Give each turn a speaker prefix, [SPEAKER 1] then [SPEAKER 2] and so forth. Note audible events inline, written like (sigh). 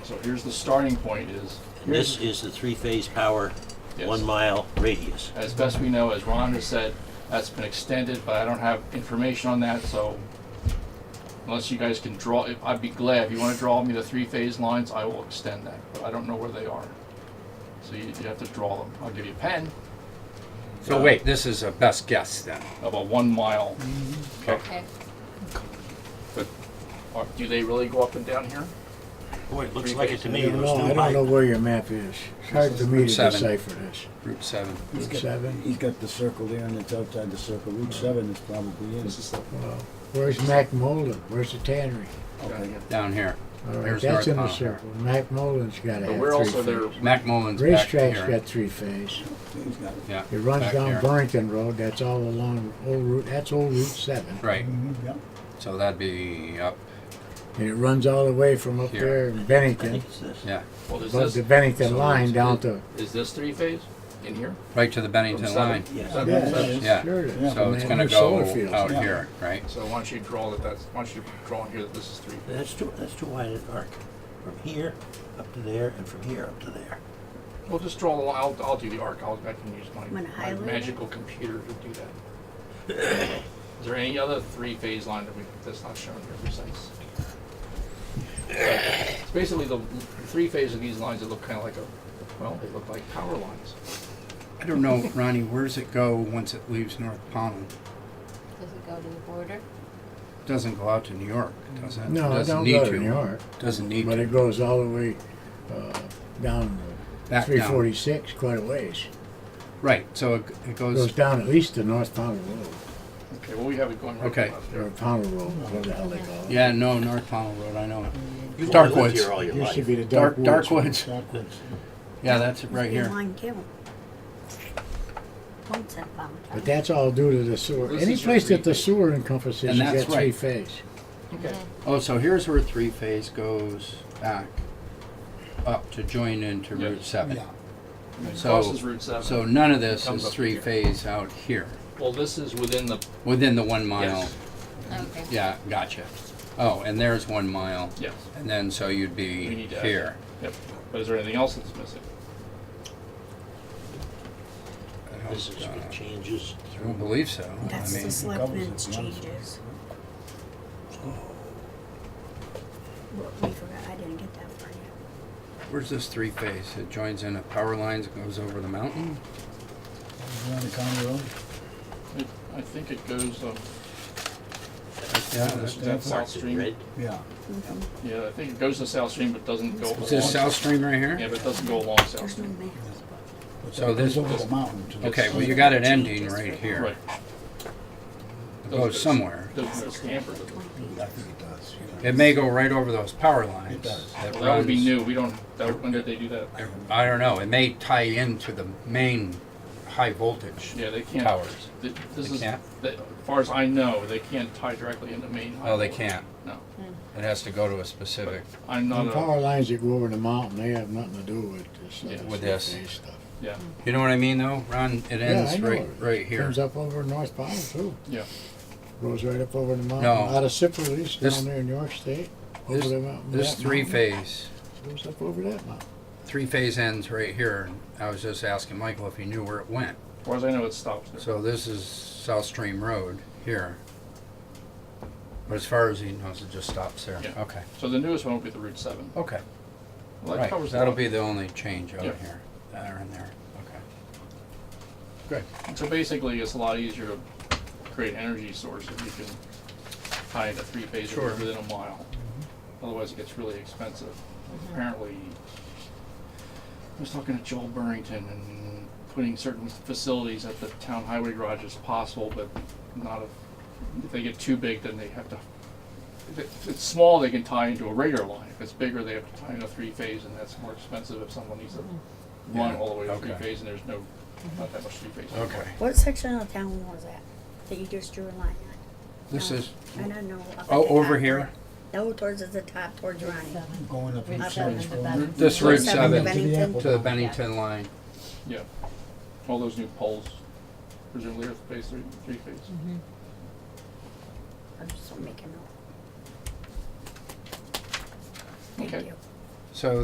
[SPEAKER 1] So here's the starting point is,
[SPEAKER 2] This is the three-phase power,
[SPEAKER 1] Yes.
[SPEAKER 2] one-mile radius.
[SPEAKER 1] as best we know, as Ron has said, that's been extended, but I don't have information on that, so unless you guys can draw, if- I'd be glad, if you wanna draw me the three-phase lines, I will extend that, but I don't know where they are. So you, you have to draw them. I'll give you a pen,
[SPEAKER 3] So wait, this is a best guess then.
[SPEAKER 1] about one mile.
[SPEAKER 4] Okay.
[SPEAKER 1] But are- do they really go up and down here?
[SPEAKER 2] Boy, it looks like it to me.
[SPEAKER 5] I don't
[SPEAKER 2] It was
[SPEAKER 5] know,
[SPEAKER 2] new
[SPEAKER 5] I don't know
[SPEAKER 2] height.
[SPEAKER 5] where your map is. It's hard for me to
[SPEAKER 3] Seven.
[SPEAKER 5] decipher this.
[SPEAKER 3] Route seven.
[SPEAKER 6] He's
[SPEAKER 5] Route
[SPEAKER 6] got-
[SPEAKER 5] seven?
[SPEAKER 6] He's got the circle there and it's outside the circle. Route seven is probably in.
[SPEAKER 5] Where's Mac Mullen? Where's the tannery?
[SPEAKER 6] Okay.
[SPEAKER 3] down here.
[SPEAKER 5] All right,
[SPEAKER 3] There's
[SPEAKER 5] that's in the
[SPEAKER 3] North Pownell.
[SPEAKER 5] circle. Mac Mullen's gotta
[SPEAKER 1] But we're
[SPEAKER 5] have
[SPEAKER 1] also
[SPEAKER 5] three
[SPEAKER 1] there,
[SPEAKER 5] phase.
[SPEAKER 3] Mac Mullen's back
[SPEAKER 5] Racetrack's
[SPEAKER 3] here.
[SPEAKER 5] got three phase.
[SPEAKER 6] He's got it.
[SPEAKER 3] Yeah,
[SPEAKER 5] It runs
[SPEAKER 3] back
[SPEAKER 5] down
[SPEAKER 3] here.
[SPEAKER 5] Burrington Road, that's all along old route, that's old Route seven.
[SPEAKER 3] Right,
[SPEAKER 6] Mhm, yeah.
[SPEAKER 3] so that'd be up,
[SPEAKER 5] And it runs all the way from up
[SPEAKER 3] Here.
[SPEAKER 5] there in
[SPEAKER 2] I
[SPEAKER 5] Bennington,
[SPEAKER 2] think it's this.
[SPEAKER 3] yeah,
[SPEAKER 1] well, is
[SPEAKER 5] above
[SPEAKER 1] this,
[SPEAKER 5] the Bennington
[SPEAKER 1] so
[SPEAKER 5] line
[SPEAKER 1] it's-
[SPEAKER 5] down
[SPEAKER 1] it-
[SPEAKER 5] to.
[SPEAKER 1] is this three-phase in here?
[SPEAKER 3] right to the Bennington
[SPEAKER 1] From seven?
[SPEAKER 3] line.
[SPEAKER 2] Yes.
[SPEAKER 1] Seven,
[SPEAKER 6] Yeah,
[SPEAKER 1] seven.
[SPEAKER 6] yeah,
[SPEAKER 3] Yeah,
[SPEAKER 5] Sure it is.
[SPEAKER 6] Yeah.
[SPEAKER 3] so
[SPEAKER 5] From
[SPEAKER 3] it's
[SPEAKER 5] that
[SPEAKER 3] gonna
[SPEAKER 5] new solar
[SPEAKER 3] go
[SPEAKER 5] fields.
[SPEAKER 3] out
[SPEAKER 6] Yeah.
[SPEAKER 3] here, right?
[SPEAKER 1] So why don't you draw that, that's, why don't you draw in here that this is three?
[SPEAKER 2] That's too, that's too wide an arc. From here up to there and from here up to there.
[SPEAKER 1] Well, just draw the line, I'll, I'll do the arc, I'll, I can use my,
[SPEAKER 4] I'm gonna
[SPEAKER 1] my
[SPEAKER 4] highlight it.
[SPEAKER 1] magical computer to do that. (coughs) Is there any other three-phase line that we, that's not shown here besides? It's basically the, the three phase of these lines that look kinda like a, well, they look like power lines.
[SPEAKER 3] I don't know, Ronnie, where's it go once it leaves North Pownell?
[SPEAKER 4] Does it go to the border?
[SPEAKER 3] Doesn't go out to New York, does it?
[SPEAKER 5] No, it
[SPEAKER 3] Doesn't
[SPEAKER 5] don't
[SPEAKER 3] need
[SPEAKER 5] go to New York,
[SPEAKER 3] Doesn't need
[SPEAKER 5] but
[SPEAKER 3] to,
[SPEAKER 5] it goes all the way, uh, down
[SPEAKER 3] back
[SPEAKER 5] three
[SPEAKER 3] down.
[SPEAKER 5] forty-six quite a ways.
[SPEAKER 3] Right, so it it
[SPEAKER 5] Goes
[SPEAKER 3] goes,
[SPEAKER 5] down at least to North Powder Road,
[SPEAKER 1] Okay, well, we have it going right
[SPEAKER 3] Okay.
[SPEAKER 1] up
[SPEAKER 5] or
[SPEAKER 1] there.
[SPEAKER 5] Powder Road, whatever the hell they call it.
[SPEAKER 3] yeah, no, North Pownell Road, I know it.
[SPEAKER 2] You've
[SPEAKER 3] Dark
[SPEAKER 2] only lived
[SPEAKER 3] woods.
[SPEAKER 2] here all your
[SPEAKER 5] Used to
[SPEAKER 2] life.
[SPEAKER 5] be the Dark
[SPEAKER 3] Dark,
[SPEAKER 5] Woods.
[SPEAKER 3] dark woods,
[SPEAKER 6] Backwards.
[SPEAKER 3] yeah, that's it right here.
[SPEAKER 4] Mine too. Once I found
[SPEAKER 5] But that's all due to the sewer.
[SPEAKER 1] This
[SPEAKER 5] Any
[SPEAKER 1] is
[SPEAKER 5] place
[SPEAKER 1] your
[SPEAKER 5] that the
[SPEAKER 1] three-phase.
[SPEAKER 5] sewer encompasses,
[SPEAKER 3] And
[SPEAKER 5] you
[SPEAKER 3] that's
[SPEAKER 5] got three
[SPEAKER 3] right.
[SPEAKER 5] phase.
[SPEAKER 4] Mm-hmm.
[SPEAKER 1] Okay,
[SPEAKER 3] Oh, so here's where three phase goes back up to join into
[SPEAKER 1] Yeah.
[SPEAKER 3] Route Seven.
[SPEAKER 5] Yeah.
[SPEAKER 1] and it
[SPEAKER 3] So-
[SPEAKER 1] crosses Route seven.
[SPEAKER 3] So none of this
[SPEAKER 1] Comes
[SPEAKER 3] is
[SPEAKER 1] up
[SPEAKER 3] three
[SPEAKER 1] here.
[SPEAKER 3] phase out here,
[SPEAKER 1] Well, this is within the,
[SPEAKER 3] within the one mile.
[SPEAKER 1] yes,
[SPEAKER 4] Okay.
[SPEAKER 3] Yeah, gotcha. Oh, and there's one mile,
[SPEAKER 1] yes,
[SPEAKER 3] and then so
[SPEAKER 1] we
[SPEAKER 3] you'd be
[SPEAKER 1] need to. add
[SPEAKER 3] here.
[SPEAKER 1] that. Yep, but is there anything else that's missing?
[SPEAKER 2] This is with changes
[SPEAKER 3] I don't believe so. I
[SPEAKER 4] That's
[SPEAKER 3] mean,
[SPEAKER 4] the selectmen's
[SPEAKER 6] covers it, yeah.
[SPEAKER 4] changes. Well, we forgot, I didn't get that for you.
[SPEAKER 3] where's this three phase? It joins in at power lines, it goes over the mountain?
[SPEAKER 6] You on the county road?
[SPEAKER 1] It- I think it goes, um,
[SPEAKER 3] Yeah,
[SPEAKER 1] that's
[SPEAKER 3] that's-
[SPEAKER 1] that South
[SPEAKER 2] marked in
[SPEAKER 1] Stream.
[SPEAKER 2] red.
[SPEAKER 6] Yeah.
[SPEAKER 1] Yeah, I think it goes to South Stream, but doesn't go along.
[SPEAKER 3] Is this South Stream right
[SPEAKER 1] Yeah,
[SPEAKER 3] here?
[SPEAKER 1] but it doesn't go along South
[SPEAKER 4] There's no
[SPEAKER 1] Stream.
[SPEAKER 4] map.
[SPEAKER 6] But
[SPEAKER 3] So
[SPEAKER 6] that goes
[SPEAKER 3] this-
[SPEAKER 6] Over the mountain to the.
[SPEAKER 3] Okay, well,
[SPEAKER 6] south.
[SPEAKER 3] you got it ending right here.
[SPEAKER 1] Right.
[SPEAKER 3] It goes somewhere.
[SPEAKER 1] Doesn't go to Stamford.
[SPEAKER 6] I think it does. yeah.
[SPEAKER 3] It may go right over those power lines.
[SPEAKER 6] It does.
[SPEAKER 3] that
[SPEAKER 1] Well, that would be
[SPEAKER 3] runs-
[SPEAKER 1] new, we don't, that, would- when did they do that?
[SPEAKER 3] I don't know, it may tie into the main high voltage.
[SPEAKER 1] Yeah, they can't.
[SPEAKER 3] Towers.
[SPEAKER 1] th- This
[SPEAKER 3] They
[SPEAKER 1] is, that-
[SPEAKER 3] can't?
[SPEAKER 1] as far as I know, they can't tie directly into main.
[SPEAKER 3] Oh, they
[SPEAKER 1] highway.
[SPEAKER 3] can't.
[SPEAKER 1] No,
[SPEAKER 3] It has to go to a specific,
[SPEAKER 1] I'm not
[SPEAKER 5] The
[SPEAKER 1] a,
[SPEAKER 5] power lines that go over the mountain, they have nothing to do with this.
[SPEAKER 1] Yeah.
[SPEAKER 5] uh,
[SPEAKER 3] With this.
[SPEAKER 5] three-phase stuff.
[SPEAKER 1] yeah,
[SPEAKER 3] you know what I mean though, Ron? It
[SPEAKER 5] Yeah,
[SPEAKER 3] ends
[SPEAKER 5] I know
[SPEAKER 3] right,
[SPEAKER 5] it.
[SPEAKER 3] right here.
[SPEAKER 5] Comes up over North Powder too.
[SPEAKER 1] yeah.
[SPEAKER 5] Goes right up over the mountain,
[SPEAKER 3] No.
[SPEAKER 5] out of Cipolle's
[SPEAKER 3] This-
[SPEAKER 5] down there in York State, over
[SPEAKER 3] This,
[SPEAKER 5] the mountain.
[SPEAKER 3] this
[SPEAKER 5] that
[SPEAKER 3] three
[SPEAKER 5] mountain,
[SPEAKER 3] phase,
[SPEAKER 5] Goes up over that mountain.
[SPEAKER 3] three phase ends right here. and I was just asking Michael if he knew where it went.
[SPEAKER 1] As far as I know, it stops there.
[SPEAKER 3] So this is South Stream Road here. But as far as he knows, it just stops there.
[SPEAKER 1] Yeah.
[SPEAKER 3] Okay,
[SPEAKER 1] So the newest one would be the Route seven.
[SPEAKER 3] okay.
[SPEAKER 1] Well, that
[SPEAKER 3] Right,
[SPEAKER 1] covers a
[SPEAKER 3] that'll
[SPEAKER 1] lot.
[SPEAKER 3] be the only change out
[SPEAKER 1] Yeah.
[SPEAKER 3] here, there and there, okay.
[SPEAKER 1] So basically, it's a lot easier to create energy source if you can tie into three phases
[SPEAKER 3] Sure. Mm-hmm.
[SPEAKER 1] within a mile. Otherwise, it gets really expensive. Apparently, I was talking to Joel Burrington and putting certain facilities at the town highway garage is possible, but not if, if they get too big, then they have to. If it- if it's small, they can tie into a regular line. If it's bigger, they have to tie into three phase, and that's more expensive if someone needs to run
[SPEAKER 3] Yeah,
[SPEAKER 1] all the way to three
[SPEAKER 3] okay.
[SPEAKER 1] phase, and there's no, not that much three phase.
[SPEAKER 3] Okay,
[SPEAKER 4] What section of town was that, that you just drew a line
[SPEAKER 3] this is,
[SPEAKER 4] on? I don't know. up at
[SPEAKER 3] oh,
[SPEAKER 4] the
[SPEAKER 3] over
[SPEAKER 4] top
[SPEAKER 3] here,
[SPEAKER 4] toward- No, towards the top, towards Ronnie.
[SPEAKER 6] Going up.
[SPEAKER 7] Route
[SPEAKER 6] Route
[SPEAKER 7] seven
[SPEAKER 6] seven
[SPEAKER 7] to
[SPEAKER 6] from-
[SPEAKER 7] Bennington.
[SPEAKER 3] This
[SPEAKER 6] Route
[SPEAKER 3] Route
[SPEAKER 6] to
[SPEAKER 3] seven
[SPEAKER 6] the
[SPEAKER 4] Bennington.
[SPEAKER 6] Apple
[SPEAKER 3] to the
[SPEAKER 6] Farm.
[SPEAKER 3] Bennington line.
[SPEAKER 1] Yeah. All those new poles, presumably are phase three, three phase.
[SPEAKER 4] I'm just making a note.
[SPEAKER 1] Okay.
[SPEAKER 4] Thank you.
[SPEAKER 3] So